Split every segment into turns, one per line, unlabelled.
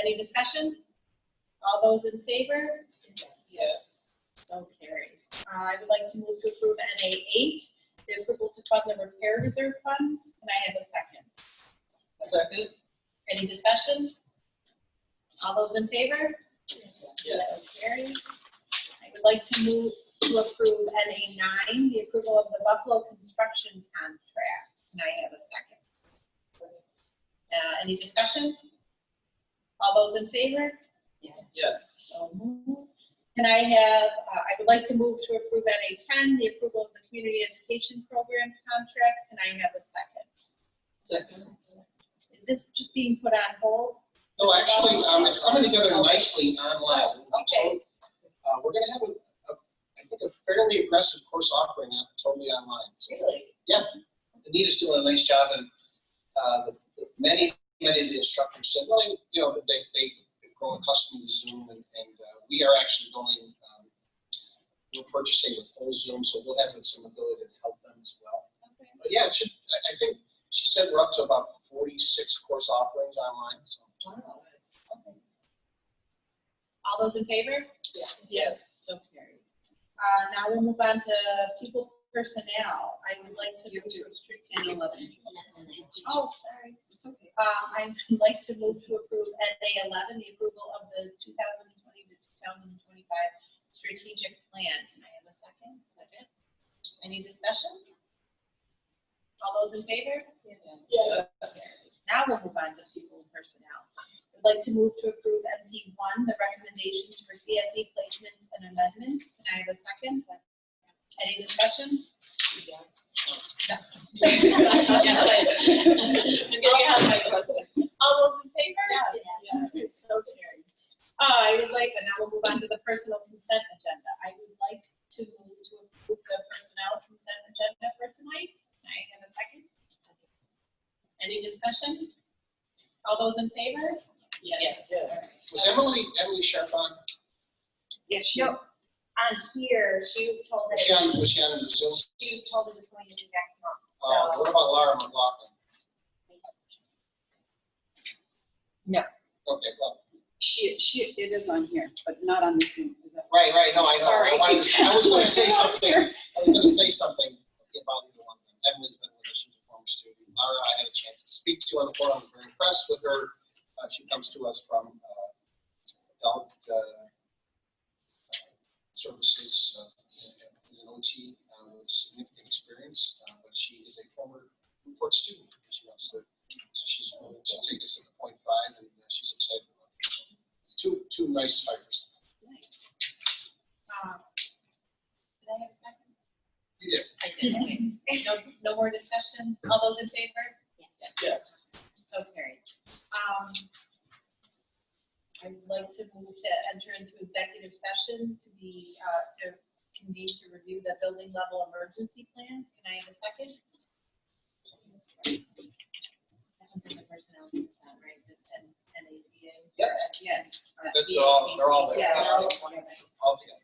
Any discussion? All those in favor?
Yes.
So carried. Uh, I would like to move to approve NA eight, the approval to fund the repair reserve fund. Can I have a second?
Second?
Any discussion? All those in favor?
Yes.
So Carried. I would like to move to approve NA nine, the approval of the Buffalo construction contract. Can I have a second? Uh, Any discussion? All those in favor? Yes.
Yes.
So moved. Can I have, uh, I would like to move to approve NA ten, the approval of the community education program contract. Can I have a second?
Second?
Is this just being put on hold?
No, actually, um, it's coming together nicely online.
Okay.
Uh, we're gonna have a, a, I think a fairly aggressive course offering out totally online. So
Really?
Anita's doing a nice job and, uh, the, the many, many of the instructors said, well, you know, that they, they have grown accustomed to Zoom and, and, uh, we are actually going, um, we're purchasing the full Zoom, so we'll have some ability to help them as well.
Okay.
But yeah, it should, I, I think she said we're up to about forty-six course offerings online, so.
Wow. Okay. All those in favor?
Yes.
So carried. Uh, now we'll move on to people personnel. I would like to. move to restrict and eleven. Oh, sorry. It's okay. Uh, I would like to move to approve NA eleven, the approval of the two thousand twenty to two thousand twenty-five strategic plan. Can I have a second? Second. Any discussion? All those in favor? Now we'll move on to people and personnel. I'd like to move to approve MP one, the recommendations for CSE placements and amendments. Can I have a second? Any discussion? Yes. All those in favor? Yes. So carried. Uh, I would like, and now we'll move on to the personal consent agenda. I would like to move to approve the personnel consent agenda for tonight. Can I have a second? Any discussion? All those in favor?
Was Emily, Emily Sharp on,
Yes, she
Nope.
is.
on here, she was told
was she
that,
on, was she on the Zoom?
she was told it was going to be next
Uh,
month,
what
so.
about Laura McLaughlin?
No.
Okay, well,
She, she, it is on here, but not on the Zoom. Is that-
right, right, no, I know, I
Sorry.
wanted to, I was gonna say something, I was gonna say something about either one of them. Emily's been with us, she's a former student. Laura, I had a chance to speak to on the forum, I was very impressed with her. Uh, she comes to us from, uh, adult, uh, services, uh, as an OT, uh, with significant experience, uh, but she is a former Newport student. She wants to, so she's willing to take us to the point five, and uh, she's excited about it. Two, two nice fighters.
Nice. Uh, Did I have a second?
You did
I did, okay. No, no more discussion? All those in favor? Yes.
Yes.
So carried. Um, I would like to move to enter into executive session to be, uh, to convene to review the building level emergency plans. Can I have a second? That one's in the personnel consent, right? This N, NABA?
Yep.
Yes. Uh, or
But they're all- they're all there.
Yeah, they're all
all together.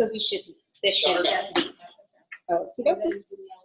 So we should, this
Shut her
should.
down.
Yes.
Oh, okay.
And then, yeah,